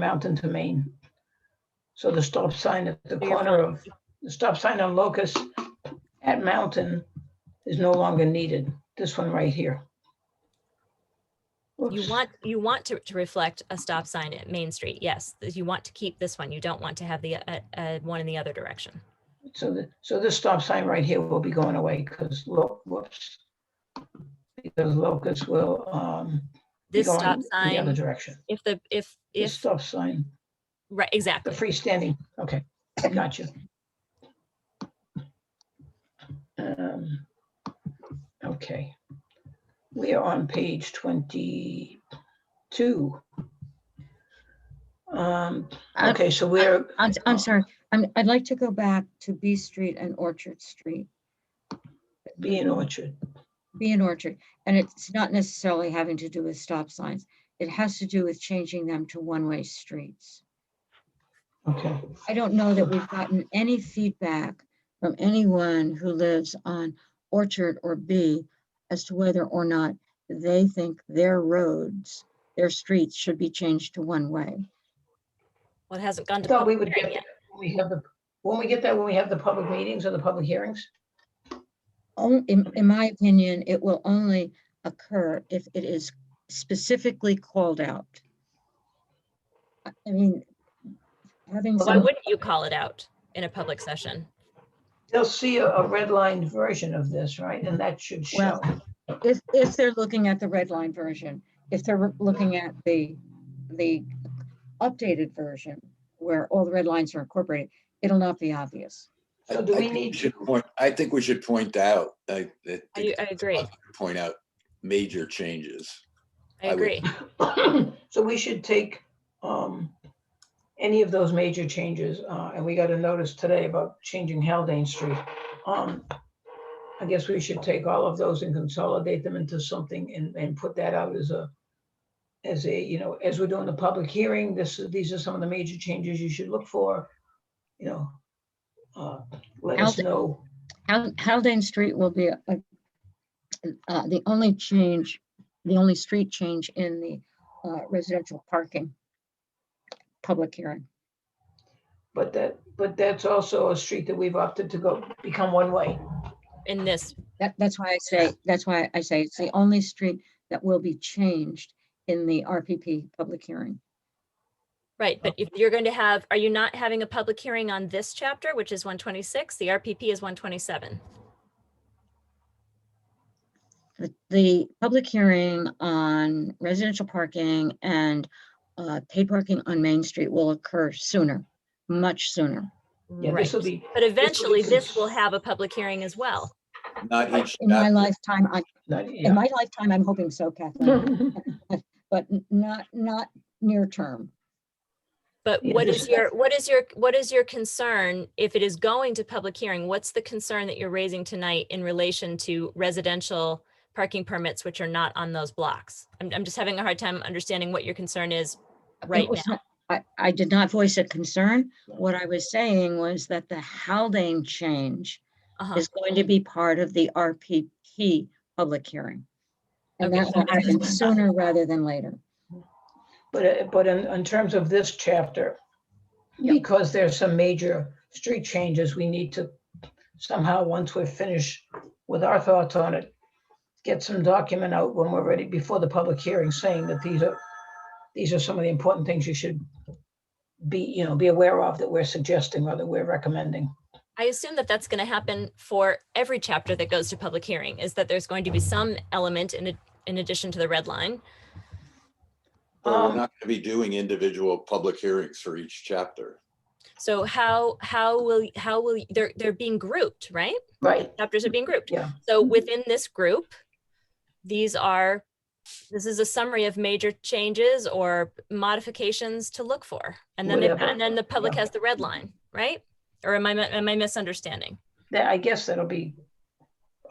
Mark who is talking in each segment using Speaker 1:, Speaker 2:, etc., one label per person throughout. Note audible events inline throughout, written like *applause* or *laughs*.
Speaker 1: Mountain to Maine. So the stop sign at the
Speaker 2: So you're
Speaker 1: corner of, the stop sign on Locust at Mountain is no longer needed. This one right here.
Speaker 2: You
Speaker 1: Oops.
Speaker 2: want, you want to, to reflect a stop sign at Main Street, yes. th- You want to keep this one. You don't want to have the, uh, uh, one in the other direction.
Speaker 1: So the, so this stop sign right here will be going away because, whoops. Because Locust will, um. be
Speaker 2: This
Speaker 1: going
Speaker 2: stop
Speaker 1: In the other
Speaker 2: sign,
Speaker 1: direction.
Speaker 2: if the, if,
Speaker 1: This
Speaker 2: if,
Speaker 1: stop sign,
Speaker 2: right,
Speaker 1: the
Speaker 2: exactly.
Speaker 1: freestanding, okay, got you. Um, Okay. We are on page twenty-two. Um,
Speaker 3: I-
Speaker 1: okay, so we're,
Speaker 3: I'm, s- I'm
Speaker 1: Oh.
Speaker 3: sorry, I'm, I'd like to go back to B Street and Orchard Street,
Speaker 1: B and Orchard,
Speaker 3: B and Orchard. And it's not necessarily having to do with stop signs. It has to do with changing them to one-way streets.
Speaker 1: okay.
Speaker 3: I don't know that we've gotten any feedback from anyone who lives on Orchard or B as to whether or not they think their roads, their streets should be changed to one-way.
Speaker 2: Well, it hasn't gone
Speaker 1: I
Speaker 2: to.
Speaker 1: thought we
Speaker 2: public
Speaker 1: would get
Speaker 2: hearing yet.
Speaker 1: that when we have the, when we get that, when we have the public meetings or the public hearings?
Speaker 3: on- in, in my opinion, it will only occur if it is specifically called out. I I mean, having
Speaker 2: Why
Speaker 3: some,
Speaker 2: wouldn't you call it out in a public session?
Speaker 1: They'll see a, a redlined version of this, right? And that should show.
Speaker 3: Well, if, if they're looking at the red line version, if they're looking at the, the updated version where all the red lines are incorporated, it'll not be obvious.
Speaker 4: I-
Speaker 1: So do
Speaker 4: I
Speaker 1: we
Speaker 4: think
Speaker 1: need-
Speaker 4: should point- I think we should point out, I, I
Speaker 2: I,
Speaker 4: think,
Speaker 2: I agree,
Speaker 4: point out major changes.
Speaker 2: I
Speaker 4: I would-
Speaker 2: agree.
Speaker 1: *coughs* So we should take um, any of those major changes, uh, and we got a notice today about changing Haldane Street. Um, I guess we should take all of those and consolidate them into something and, and put that out as a, as a, you know, as we're doing the public hearing, this, is- these are some of the major changes you should look for, you know. uh, Let us
Speaker 3: Halda-
Speaker 1: know.
Speaker 3: Hal- Haldane Street will be a- uh, the only change, the only street change in the uh, residential parking public hearing.
Speaker 1: But that, but that's also a street that we've opted to go, become one way.
Speaker 2: In this,
Speaker 3: That, that's why I say, that's why I say it's the only street that will be changed in the RPP public hearing.
Speaker 2: right, but if you're going to have, are you not having a public hearing on this chapter, which is one twenty-six? The RPP is one twenty-seven.
Speaker 3: The, the public hearing on residential parking and uh, paid parking on Main Street will occur sooner, much sooner.
Speaker 1: Yeah,
Speaker 2: Right,
Speaker 1: this will be,
Speaker 2: but eventually this will
Speaker 1: cons-
Speaker 2: have a public hearing as well.
Speaker 4: Not each,
Speaker 3: In my
Speaker 4: not-
Speaker 3: lifetime, I,
Speaker 1: not- yeah.
Speaker 3: in my lifetime, I'm hoping so, Kathleen.
Speaker 1: *laughs*
Speaker 3: but n- not, not near term.
Speaker 2: But
Speaker 1: Yeah,
Speaker 2: what
Speaker 1: this-
Speaker 2: is your, what is your, what is your concern if it is going to public hearing? What's the concern that you're raising tonight in relation to residential parking permits which are not on those blocks? I'm, I'm just having a hard time understanding what your concern is
Speaker 3: It
Speaker 2: right
Speaker 3: was
Speaker 2: now.
Speaker 3: not- I, I did not voice a concern.
Speaker 1: No.
Speaker 3: What I was saying was that the Haldane change
Speaker 2: Uh-huh.
Speaker 3: is going to be part of the RPP public hearing. And
Speaker 2: Okay,
Speaker 3: that
Speaker 2: so
Speaker 3: will
Speaker 2: this is
Speaker 3: happen
Speaker 2: not-
Speaker 3: sooner rather than later.
Speaker 1: But, uh, but in, in terms of this chapter,
Speaker 3: Yep.
Speaker 1: because there's some major street changes, we need to somehow, once we're finished with our thoughts on it, get some document out when we're ready, before the public hearing, saying that these are, these are some of the important things you should be, you know, be aware of that we're suggesting or that we're recommending.
Speaker 2: I assume that that's going to happen for every chapter that goes to public hearing, is that there's going to be some element in, ad- in addition to the red line.
Speaker 4: we're not
Speaker 1: Um,
Speaker 4: going to be doing individual public hearings for each chapter.
Speaker 2: So how, how will, how will, they're, they're being grouped, right?
Speaker 1: Right,
Speaker 2: chapters are being grouped.
Speaker 1: Yeah.
Speaker 2: So within this group, these are, this is a summary of major changes or modifications to look for. And then, the-
Speaker 1: Whatever.
Speaker 2: and then the public
Speaker 1: Yeah.
Speaker 2: has the red line, right? Or am I, mi- am I misunderstanding?
Speaker 1: that, I guess that'll be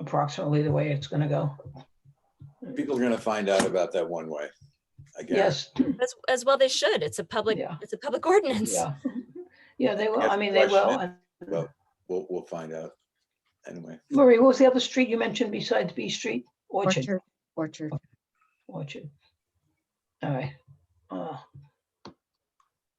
Speaker 1: approximately the way it's gonna go.
Speaker 4: People are going to find out about that one way. I guess.
Speaker 1: Yes,
Speaker 2: As, as well they should. It's a public,
Speaker 1: Hmm. Yeah.
Speaker 2: it's a public *laughs* ordinance.
Speaker 1: yeah. Yeah, they will,
Speaker 4: Yeah,
Speaker 1: I mean, they will.
Speaker 4: question
Speaker 1: and-
Speaker 4: Well, we'll, we'll find out. Anyway,
Speaker 1: Marie, what was the other street you mentioned besides B Street? Orchard,
Speaker 3: Orchard, Orchard.
Speaker 1: Orchard. All right. Uh,